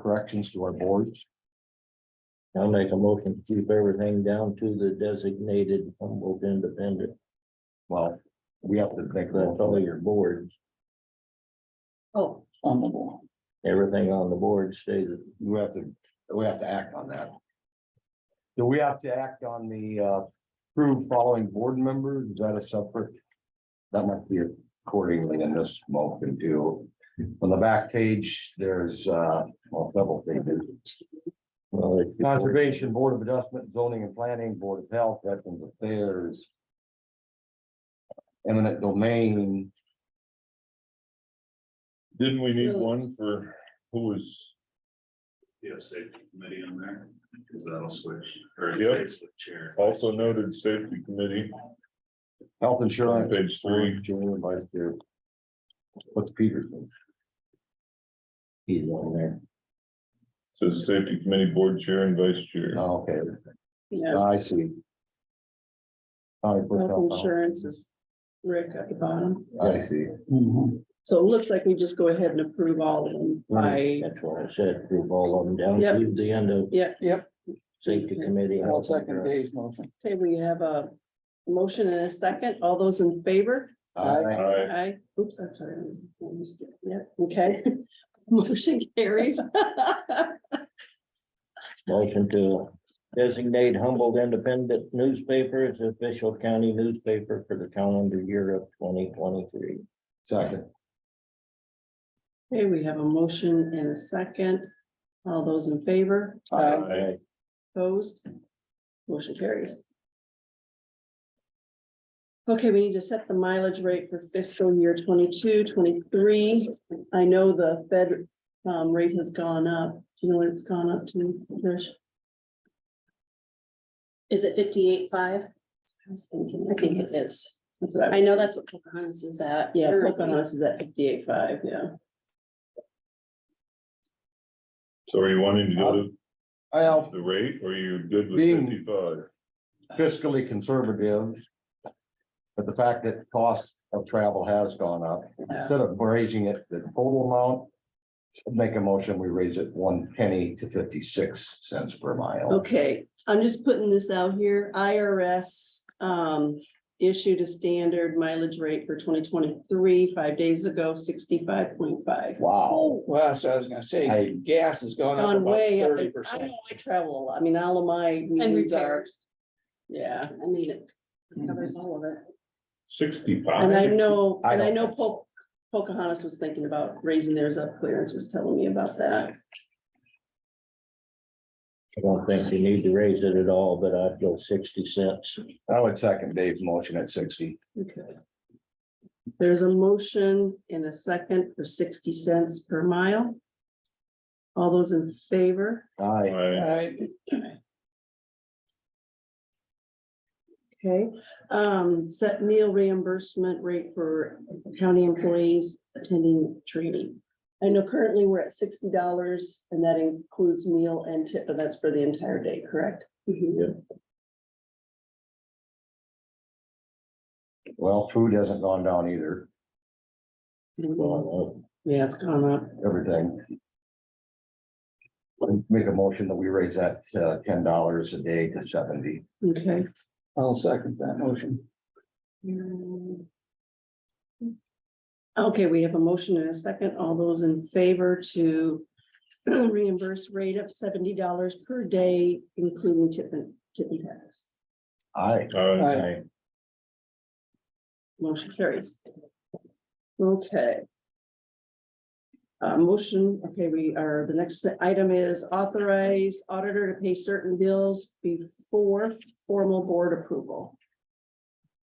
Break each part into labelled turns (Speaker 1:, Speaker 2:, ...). Speaker 1: corrections to our boards.
Speaker 2: I'll make a motion to keep everything down to the designated Humboldt Independent.
Speaker 1: Well, we have to make
Speaker 2: That's
Speaker 1: that.
Speaker 2: all your boards.
Speaker 3: Oh,
Speaker 2: Everything on the board stays.
Speaker 1: We have to, we have to act on that. Do we have to act on the uh approved following board members? Is that a separate? That must be accordingly in this motion too. On the back page, there's uh, well, several pages.
Speaker 2: well, it's-
Speaker 1: Conservation Board of Adjustment, Zoning and Planning, Board of Health, Veterans Affairs. Eminent domain,
Speaker 4: Didn't we need
Speaker 3: Really?
Speaker 4: one for who was,
Speaker 5: You have safety committee in there, because that'll switch, or it
Speaker 4: Yep.
Speaker 5: stays with chair.
Speaker 4: also noted safety committee,
Speaker 1: health insurance.
Speaker 4: Page three.
Speaker 1: Chairman, Vice Chair. What's Peterson?
Speaker 2: He's on there.
Speaker 4: says safety committee board chair and vice chair.
Speaker 1: Oh, Okay, Ah,
Speaker 3: yeah,
Speaker 1: I see. All right, first
Speaker 3: health
Speaker 1: off,
Speaker 3: insurance is Rick at the bottom.
Speaker 1: I see.
Speaker 3: So it looks like we just go ahead and approve all of them by,
Speaker 2: That's what I said, group all of them down
Speaker 3: Yep.
Speaker 2: to the end of
Speaker 3: yeah.
Speaker 6: Yep.
Speaker 2: safety committee.
Speaker 6: I'll second Dave's motion.
Speaker 3: Okay, we have a motion and a second. All those in favor?
Speaker 1: Aye.
Speaker 4: Aye.
Speaker 3: Aye. Oops, I'm sorry. I missed it. Yeah, okay. Motion carries.
Speaker 2: Motion to designate Humboldt Independent Newspaper as the official county newspaper for the calendar year of twenty twenty-three.
Speaker 1: Second,
Speaker 3: Okay, we have a motion and a second. All those in favor?
Speaker 6: Aye.
Speaker 4: Aye.
Speaker 3: Opposed? Motion carries. Okay, we need to set the mileage rate for fiscal year 22, 23. I know the Fed um, rate has gone up. Do you know what it's gone up to, Trish?
Speaker 7: Is it fifty-eight five?
Speaker 3: I was thinking.
Speaker 7: I think it is.
Speaker 3: That's what
Speaker 7: I know that's what Pocahontas is at.
Speaker 3: Yeah,
Speaker 7: Or-
Speaker 3: Pocahontas is at 58.5, yeah.
Speaker 4: So are you wanting to go to
Speaker 1: well,
Speaker 4: the rate or are you good with
Speaker 1: Being-
Speaker 4: fifty-five?
Speaker 1: fiscally conservative. But the fact that cost of travel has gone up, instead of raising it the total amount. Make a motion, we raise it one penny to fifty-six cents per mile.
Speaker 3: Okay, I'm just putting this out here. IRS um issued a standard mileage rate for twenty twenty-three, five days ago, sixty-five point five.
Speaker 1: Wow.
Speaker 6: Well, so I was gonna
Speaker 1: I-
Speaker 6: say, gas has gone up
Speaker 3: Gone
Speaker 6: about
Speaker 3: way up.
Speaker 6: thirty
Speaker 3: I
Speaker 6: percent.
Speaker 3: know I travel a lot. I mean, all of my
Speaker 7: And
Speaker 3: meetings are,
Speaker 7: repairs.
Speaker 3: yeah.
Speaker 7: I mean, it covers all of
Speaker 3: And
Speaker 7: it.
Speaker 3: I
Speaker 4: Sixty-five,
Speaker 3: know,
Speaker 1: I
Speaker 3: and I
Speaker 1: don't
Speaker 3: know
Speaker 1: think
Speaker 3: Po- Pocahontas was thinking about raising theirs up. Clarence was telling me about that.
Speaker 2: I don't think you need to raise it at all, but I'd go sixty cents.
Speaker 1: I would second Dave's motion at sixty.
Speaker 3: Okay. There's a motion in a second for sixty cents per mile. All those in favor?
Speaker 1: Aye.
Speaker 4: Aye.
Speaker 6: Right,
Speaker 3: Okay, um, set meal reimbursement rate for county employees attending training. I know currently we're at sixty dollars and that includes meal and tip, but that's for the entire day, correct? Mm-hmm.
Speaker 1: Well, food hasn't gone down either,
Speaker 2: Well,
Speaker 3: Yeah, it's gone up.
Speaker 1: everything. Make a motion that we raise that uh, ten dollars a day to seventy.
Speaker 3: Okay.
Speaker 6: I'll second that motion.
Speaker 3: Okay, we have a motion and a second. All those in favor to reimburse rate of seventy dollars per day, including tip and tip and tax.
Speaker 1: Aye.
Speaker 4: Aye.
Speaker 6: Aye.
Speaker 3: Motion carries. Okay. Uh, motion, okay, we are, the next item is authorize auditor to pay certain bills before formal board approval.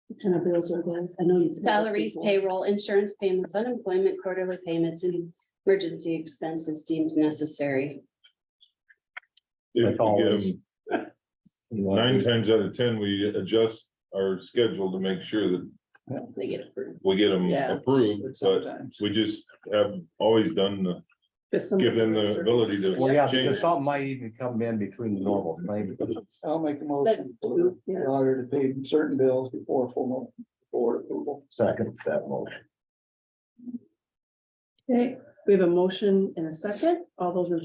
Speaker 3: What Kind of bills are those? I know. you said this
Speaker 7: Salaries,
Speaker 3: before.
Speaker 7: payroll, insurance payments, unemployment, quarterly payments, and emergency expenses deemed necessary.
Speaker 4: If we get 'em
Speaker 2: you
Speaker 4: Nine
Speaker 2: want-
Speaker 4: times out of ten, we adjust our schedule to make sure that
Speaker 7: They get approved.
Speaker 4: we get them
Speaker 3: Yeah.
Speaker 4: approved, but
Speaker 6: Sometimes.
Speaker 4: we just have always done the,
Speaker 3: But some-
Speaker 4: give them the ability to.
Speaker 1: Well, yeah,
Speaker 4: change.
Speaker 1: because something might even come in between the normal claim.
Speaker 6: I'll make a motion for
Speaker 3: Yeah.
Speaker 6: the auditor to pay certain bills before formal board approval.
Speaker 1: Second that motion.
Speaker 3: Okay, we have a motion and a second. All those in